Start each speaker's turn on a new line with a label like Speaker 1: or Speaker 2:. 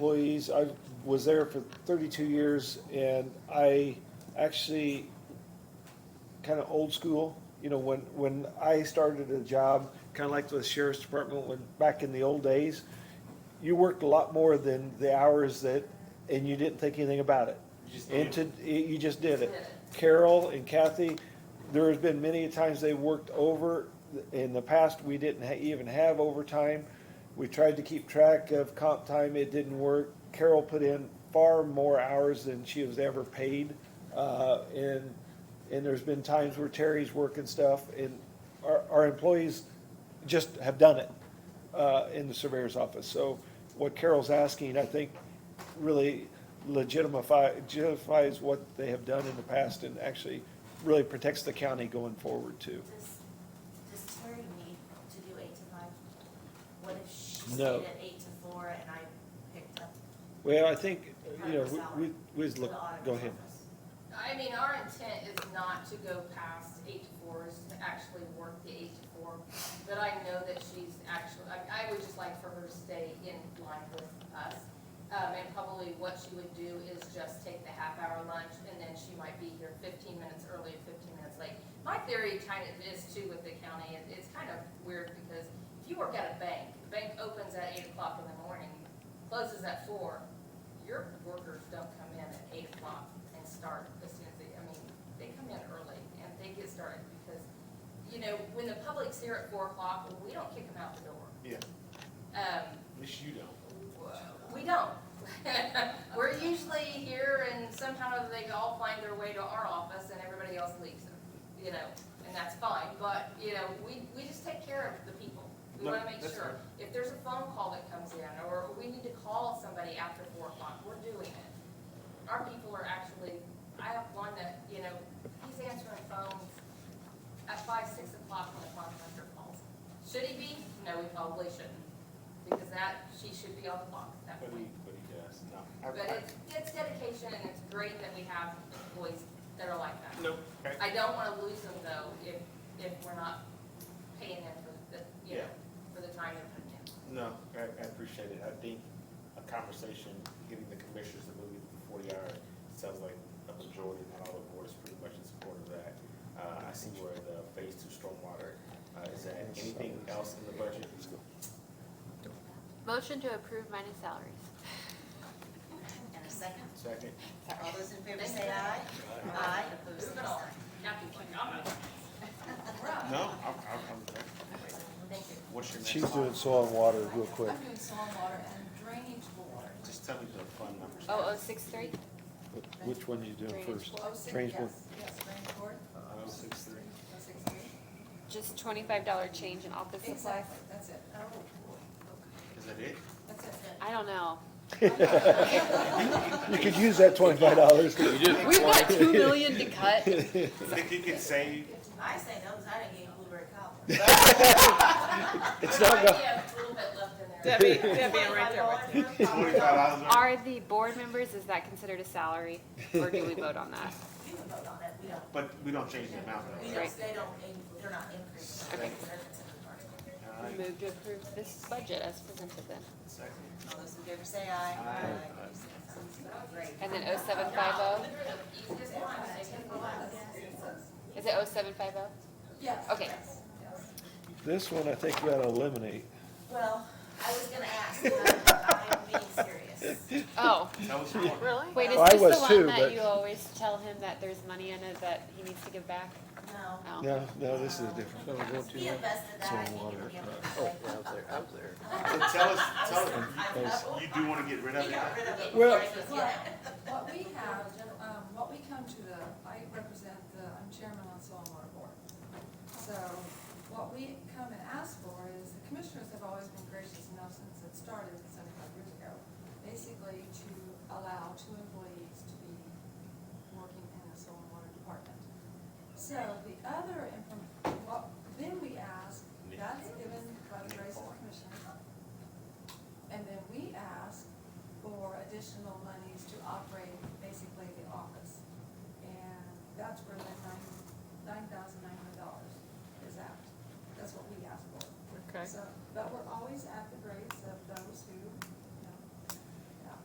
Speaker 1: employees. I was there for thirty-two years and I actually kind of old school. You know, when, when I started a job, kind of like the sheriff's department when, back in the old days, you worked a lot more than the hours that, and you didn't think anything about it.
Speaker 2: You just
Speaker 1: And
Speaker 2: did.
Speaker 1: to, you just did it.
Speaker 3: Just did
Speaker 1: Carol and Kathy, there has been many times they worked over. In the past, we didn't ha- even have overtime. We tried to keep track of comp time. It didn't work. Carol put in far more hours than she was ever paid. Uh, and, and there's been times where Terry's working stuff and our, our employees just have done it, uh, in the surveyor's office. So what Carol's asking, I think, really legitimify, legitifies what they have done in the past and actually really protects the county going forward too.
Speaker 3: Does, does Terry need to do eight to five? What if she
Speaker 1: No.
Speaker 3: stayed at eight to four and I picked up
Speaker 1: Well, I think, you
Speaker 3: part
Speaker 1: know,
Speaker 3: of her
Speaker 1: we,
Speaker 3: salary?
Speaker 1: we, we just
Speaker 3: to
Speaker 1: look,
Speaker 3: the auditor's
Speaker 1: go ahead.
Speaker 3: office?
Speaker 4: I mean, our intent is not to go past eight to fours, to actually work the eight to four, but I know that she's actually, I, I would just like for her to stay in line with us. Um, and probably what she would do is just take the half hour lunch, and then she might be here fifteen minutes early, and fifteen minutes late. My theory kind of is too with the county, it, it's kind of weird because if you work at a bank, the bank opens at eight o'clock in the morning, closes at four, your workers don't come in at eight o'clock and start as soon as they, I mean, they come in early and they get started because, you know, when the public's here at four o'clock, we don't kick them out the door.
Speaker 2: Yeah,
Speaker 4: Um,
Speaker 2: at least you don't.
Speaker 4: we don't. We're usually here and somehow they all find their way to our office and everybody else leaves them, you know, and that's fine, but, you know, we, we just take care of the people. We
Speaker 2: No,
Speaker 4: wanna make
Speaker 2: that's
Speaker 4: sure, if there's a phone call that comes in, or we need to call somebody after four o'clock, we're doing it. Our people are actually, I have one that, you know, he's answering phones at five, six o'clock when the contractor calls. Should he be? No, he probably shouldn't, because that, she should be on the clock at
Speaker 2: But
Speaker 4: that
Speaker 2: he,
Speaker 4: point.
Speaker 2: but he does, no. I-
Speaker 4: But
Speaker 2: I-
Speaker 4: it's, it's dedication, and it's great that we have employees that are like that.
Speaker 2: Nope, okay.
Speaker 4: I don't wanna lose them though, if, if we're not paying them for the, you know,
Speaker 2: Yeah.
Speaker 4: for the time they're putting in.
Speaker 2: No, I, I appreciate it. I think a conversation, getting the commissioners to move the forty hour, sounds like a majority, not all the board is pretty much in support of that. Uh, I see where the phase two stormwater, uh, is at. Anything else in the budget?
Speaker 5: Motion to approve minus salaries.
Speaker 3: And a second,
Speaker 2: Second?
Speaker 3: all those in favor say aye? Aye, opposed, same
Speaker 4: Move it all. Kathy, like, I'm not-
Speaker 3: sign.
Speaker 2: No, I'm, I'm, I'm,
Speaker 3: Thank you.
Speaker 2: what's your next?
Speaker 1: She's doing soil and water real quick.
Speaker 6: I'm doing soil and water and drainage board.
Speaker 2: Just tell me the fund numbers.
Speaker 5: Oh, oh, six, three?
Speaker 1: Which one you doing
Speaker 5: Drainage
Speaker 1: first?
Speaker 6: Oh, six,
Speaker 1: Drainage board.
Speaker 6: yes, yes, drainage board,
Speaker 2: Oh, six, three.
Speaker 6: oh, six, three.
Speaker 5: Just twenty-five dollar change in office supplies?
Speaker 6: Exactly, that's it. Oh,
Speaker 2: Is that it?
Speaker 6: That's it.
Speaker 5: I don't know.
Speaker 1: You could use that twenty-five dollars.
Speaker 5: We've got two million to cut.
Speaker 2: Think you could save
Speaker 3: I say no, because I didn't get blueberry cobbler.
Speaker 1: It's not, go-
Speaker 4: We have a little bit left in there.
Speaker 7: Debbie, Debbie, I'm right there with you.
Speaker 2: forty-five dollars?
Speaker 5: Are the board members, is that considered a salary? Or do we vote on that?
Speaker 3: You can vote on that, we don't,
Speaker 2: But we don't change the amount though,
Speaker 3: we
Speaker 2: right?
Speaker 3: don't, they don't, in- they're not increasing.
Speaker 5: Okay.
Speaker 3: They're considered part of it.
Speaker 2: All right.
Speaker 5: Move to approve this budget as presented then.
Speaker 2: Second.
Speaker 3: All those in favor say aye?
Speaker 2: Aye.
Speaker 3: opposed, same sign. Great.
Speaker 5: And then oh seven five oh?
Speaker 4: Easiest one, they can relax.
Speaker 5: Is it oh seven five oh?
Speaker 6: Yes.
Speaker 5: Okay.
Speaker 6: yes, yes.
Speaker 1: this one I think we ought to eliminate.
Speaker 3: Well, I was gonna ask, but I'm being serious.
Speaker 5: Oh,
Speaker 2: Tell us more.
Speaker 4: Really?
Speaker 5: wait, is
Speaker 1: Well, I
Speaker 5: this the
Speaker 1: was too,
Speaker 5: one
Speaker 1: but-
Speaker 5: that you always tell him that there's money in it that he needs to give back?
Speaker 3: No.
Speaker 5: Oh.
Speaker 1: No, no, this is different.
Speaker 3: He invested that, I think it'll be able to.
Speaker 2: So tell us, tell us,
Speaker 3: Yes.
Speaker 2: you do want to get rid of
Speaker 3: He
Speaker 2: it?
Speaker 3: got rid of it.
Speaker 1: Well-
Speaker 3: before he was yet.
Speaker 6: What we have, um, what we come to the, I represent the, I'm chairman on soil and water board. So what we come and ask for is, the commissioners have always been gracious enough since it started seventy-five years ago, basically to allow two employees to be working in the soil and water department. So the other, inform- what, then we ask, that's given by the grace of the commissioners. And then we ask for additional monies to operate basically the office. And that's where the nine, nine thousand nine hundred dollars is at. That's what we ask for.
Speaker 7: Okay.
Speaker 6: So, but we're always at the